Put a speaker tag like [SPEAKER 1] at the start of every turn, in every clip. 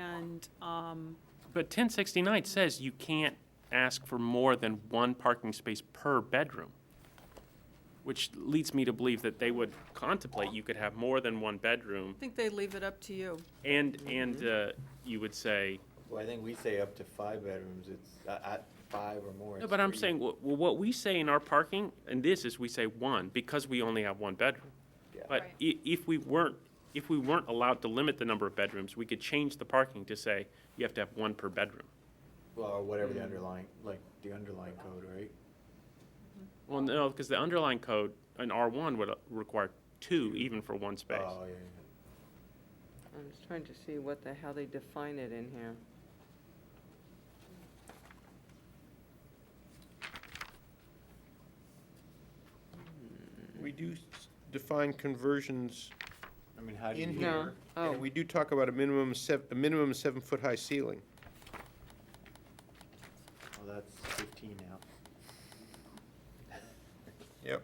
[SPEAKER 1] and, um,
[SPEAKER 2] But ten sixty-nine says you can't ask for more than one parking space per bedroom, which leads me to believe that they would contemplate you could have more than one bedroom,
[SPEAKER 1] I think they leave it up to you.
[SPEAKER 2] and, and uh, you would say,
[SPEAKER 3] Well, I think we say up to five bedrooms, it's, uh, at five or more.
[SPEAKER 2] no,
[SPEAKER 3] it's
[SPEAKER 2] but I'm
[SPEAKER 3] three.
[SPEAKER 2] saying, wh- wh- what we say in our parking, and this is, we say one, because we only have one bedroom.
[SPEAKER 3] Yeah.
[SPEAKER 2] But i- if we weren't, if we weren't allowed to limit the number of bedrooms, we could change the parking to say you have to have one per bedroom.
[SPEAKER 3] Well, or whatever the underlying, like, the underlying code, right?
[SPEAKER 2] Well, no, because the underlying code, an R1 would uh, require two even for one space.
[SPEAKER 3] Oh, yeah, yeah,
[SPEAKER 4] I'm just trying to see what the, how they define it in here.
[SPEAKER 5] We do s- define conversions
[SPEAKER 3] yeah. I mean, how do you?
[SPEAKER 5] in
[SPEAKER 4] No.
[SPEAKER 5] here,
[SPEAKER 4] Oh.
[SPEAKER 5] and we do talk about a minimum sev- a minimum seven-foot-high ceiling.
[SPEAKER 3] Well, that's fifteen now.
[SPEAKER 5] Yep.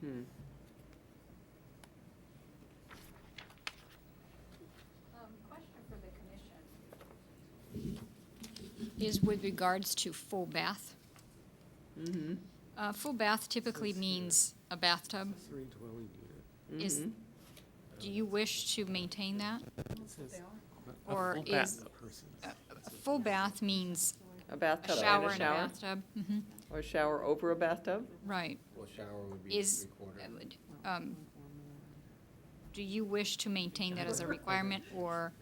[SPEAKER 4] Hmm.
[SPEAKER 6] Um, Question for the commission. Is with regards to full bath.
[SPEAKER 4] Mm-hmm.
[SPEAKER 6] Uh, Full bath typically means a bathtub. Is,
[SPEAKER 4] Mm-hmm.
[SPEAKER 6] do you wish to maintain that? Or
[SPEAKER 2] full bath-
[SPEAKER 6] is, a full bath means
[SPEAKER 4] A
[SPEAKER 6] a
[SPEAKER 4] bathtub and
[SPEAKER 6] shower
[SPEAKER 4] a
[SPEAKER 6] and a
[SPEAKER 4] shower?
[SPEAKER 6] bathtub? Mhm,
[SPEAKER 4] Or a shower over a bathtub?
[SPEAKER 6] Right.
[SPEAKER 3] Well, shower would be
[SPEAKER 6] Is,
[SPEAKER 3] three quarter.
[SPEAKER 6] um, do you wish to maintain that as a requirement or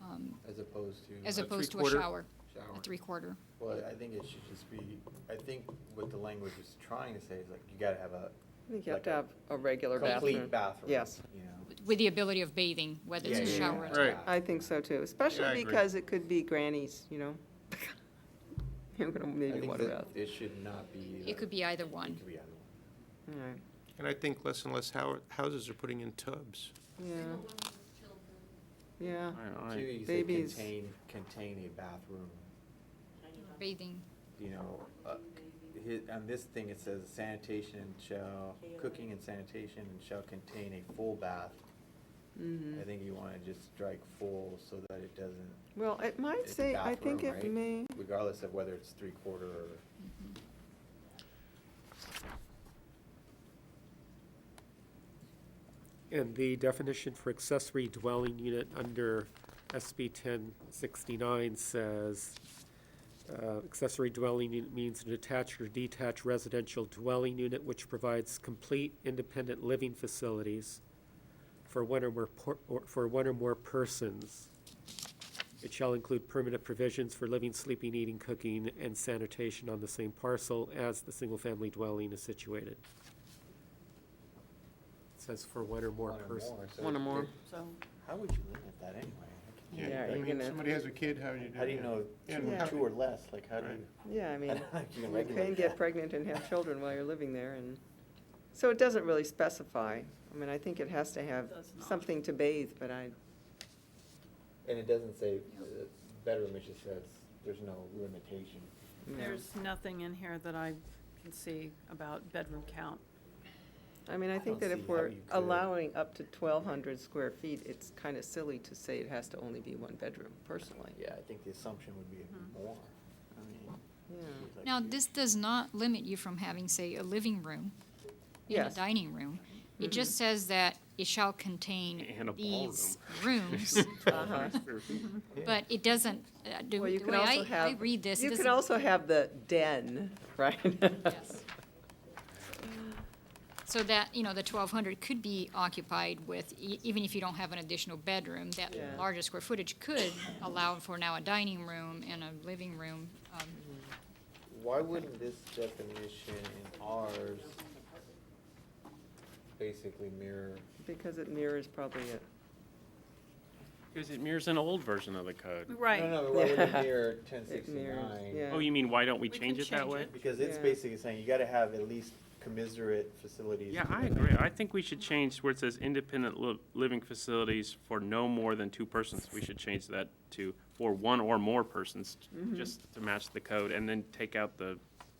[SPEAKER 6] um,
[SPEAKER 3] As opposed to.
[SPEAKER 6] as
[SPEAKER 3] a
[SPEAKER 6] opposed to a
[SPEAKER 2] three-quarter?
[SPEAKER 6] shower?
[SPEAKER 3] Shower.
[SPEAKER 6] A three-quarter?
[SPEAKER 3] Well, I think it should just be, I think what the language is trying to say is like, you gotta have a
[SPEAKER 4] I think you have
[SPEAKER 3] Like
[SPEAKER 4] to
[SPEAKER 3] a
[SPEAKER 4] have a regular bathroom.
[SPEAKER 3] complete bathroom.
[SPEAKER 4] Yes.
[SPEAKER 3] You know?
[SPEAKER 6] With the ability of bathing, whether it's
[SPEAKER 3] Yeah,
[SPEAKER 6] a
[SPEAKER 3] yeah,
[SPEAKER 6] shower or
[SPEAKER 3] yeah.
[SPEAKER 6] a
[SPEAKER 2] Right.
[SPEAKER 4] I think so too, especially
[SPEAKER 5] agree.
[SPEAKER 4] because it could be grannies, you know? You're gonna
[SPEAKER 3] I
[SPEAKER 4] maybe
[SPEAKER 3] think
[SPEAKER 4] want a
[SPEAKER 3] that
[SPEAKER 4] bath.
[SPEAKER 3] it should not be.
[SPEAKER 6] It could be either
[SPEAKER 3] It
[SPEAKER 6] one.
[SPEAKER 3] could be either one.
[SPEAKER 4] All right.
[SPEAKER 5] And I think less and less hou- houses are putting in tubs.
[SPEAKER 4] Yeah. Yeah,
[SPEAKER 2] All right, all
[SPEAKER 3] Two,
[SPEAKER 2] right.
[SPEAKER 3] you say
[SPEAKER 4] Babies.
[SPEAKER 3] contain, contain a bathroom,
[SPEAKER 6] Bathing,
[SPEAKER 3] you know, uh, hi- on this thing, it says sanitation and shall, cooking and sanitation and shall contain a full bath.
[SPEAKER 4] mm-hmm.
[SPEAKER 3] I think you wanna just strike full so that it doesn't,
[SPEAKER 4] Well, it might
[SPEAKER 3] It's a
[SPEAKER 4] say, I think
[SPEAKER 3] bathroom,
[SPEAKER 4] it
[SPEAKER 3] right?
[SPEAKER 4] may,
[SPEAKER 3] regardless of whether it's three quarter or.
[SPEAKER 7] And the definition for accessory dwelling unit under SB ten sixty-nine says, uh, accessory dwelling unit means an attached or detached residential dwelling unit which provides complete independent living facilities for one or more, por- or for one or more persons. It shall include permanent provisions for living, sleeping, eating, cooking, and sanitation on the same parcel as the single-family dwelling is situated. It Says for one or more
[SPEAKER 3] one or
[SPEAKER 7] persons.
[SPEAKER 3] more, so
[SPEAKER 4] one or more.
[SPEAKER 1] So,
[SPEAKER 3] How would you limit that anyway?
[SPEAKER 4] Yeah,
[SPEAKER 5] I
[SPEAKER 4] you're
[SPEAKER 5] mean, if
[SPEAKER 4] gonna-
[SPEAKER 5] somebody has a kid, how do you do
[SPEAKER 3] How do you
[SPEAKER 5] that?
[SPEAKER 3] know
[SPEAKER 5] Yeah,
[SPEAKER 3] two,
[SPEAKER 4] Yeah.
[SPEAKER 3] two or less, like how do you?
[SPEAKER 4] Yeah, I
[SPEAKER 3] I
[SPEAKER 4] mean,
[SPEAKER 3] don't think you can
[SPEAKER 4] you can
[SPEAKER 3] regulate
[SPEAKER 4] get
[SPEAKER 3] that.
[SPEAKER 4] pregnant and have children while you're living there and, so it doesn't really specify. I mean, I think it has to have
[SPEAKER 1] Does not.
[SPEAKER 4] something to bathe, but I,
[SPEAKER 3] And it doesn't say uh, bedroom, it just says there's no limitation.
[SPEAKER 4] no.
[SPEAKER 1] there's nothing in here that I can see about bedroom count.
[SPEAKER 4] I mean, I
[SPEAKER 3] I
[SPEAKER 4] think
[SPEAKER 3] don't
[SPEAKER 4] that
[SPEAKER 3] see
[SPEAKER 4] if
[SPEAKER 3] how
[SPEAKER 4] we're
[SPEAKER 3] you could-
[SPEAKER 4] allowing up to twelve hundred square feet, it's kind of silly to say it has to only be one bedroom, personally.
[SPEAKER 3] Yeah, I think the assumption would be
[SPEAKER 1] Mhm.
[SPEAKER 3] more. I mean,
[SPEAKER 4] Mm-hmm. Yeah.
[SPEAKER 3] it's like
[SPEAKER 6] now,
[SPEAKER 3] you-
[SPEAKER 6] this does not limit you from having, say, a living room and a
[SPEAKER 4] Yes. Mm-hmm.
[SPEAKER 6] dining room. It just says that it shall contain
[SPEAKER 2] And a
[SPEAKER 6] these rooms,
[SPEAKER 4] Uh-huh.
[SPEAKER 6] but it doesn't, uh, do,
[SPEAKER 4] Well, you
[SPEAKER 6] the
[SPEAKER 4] can
[SPEAKER 6] way
[SPEAKER 4] also
[SPEAKER 6] I, I
[SPEAKER 4] have-
[SPEAKER 6] read this, it
[SPEAKER 4] You
[SPEAKER 6] doesn't.
[SPEAKER 4] can also have the den, right?
[SPEAKER 6] Yes. So that, you know, the twelve hundred could be occupied with, e- even if you don't have an additional bedroom, that
[SPEAKER 4] Yeah.
[SPEAKER 6] larger square footage could allow for now a dining room and a living room, um,
[SPEAKER 3] Why wouldn't this definition in ours basically mirror?
[SPEAKER 4] Because it mirrors probably it.
[SPEAKER 2] Because it mirrors an old version of the code.
[SPEAKER 3] No,
[SPEAKER 1] Right,
[SPEAKER 3] no, but why would it
[SPEAKER 4] Yeah.
[SPEAKER 3] mirror ten
[SPEAKER 4] It mirrors,
[SPEAKER 3] sixty-nine?
[SPEAKER 4] yeah.
[SPEAKER 2] Oh, you mean, why don't we
[SPEAKER 1] We
[SPEAKER 2] change
[SPEAKER 1] can
[SPEAKER 2] it that
[SPEAKER 1] change
[SPEAKER 2] way?
[SPEAKER 1] it.
[SPEAKER 3] Because it's
[SPEAKER 4] Yeah.
[SPEAKER 3] basically saying you gotta have at least commiserate facilities.
[SPEAKER 2] Yeah,
[SPEAKER 3] for
[SPEAKER 2] I
[SPEAKER 3] the-
[SPEAKER 2] agree. I think we should change where it says independent li- living facilities for no more than two persons. We should
[SPEAKER 1] Mm-hmm.
[SPEAKER 2] change that to for one or more persons, just to match the code, and then take out the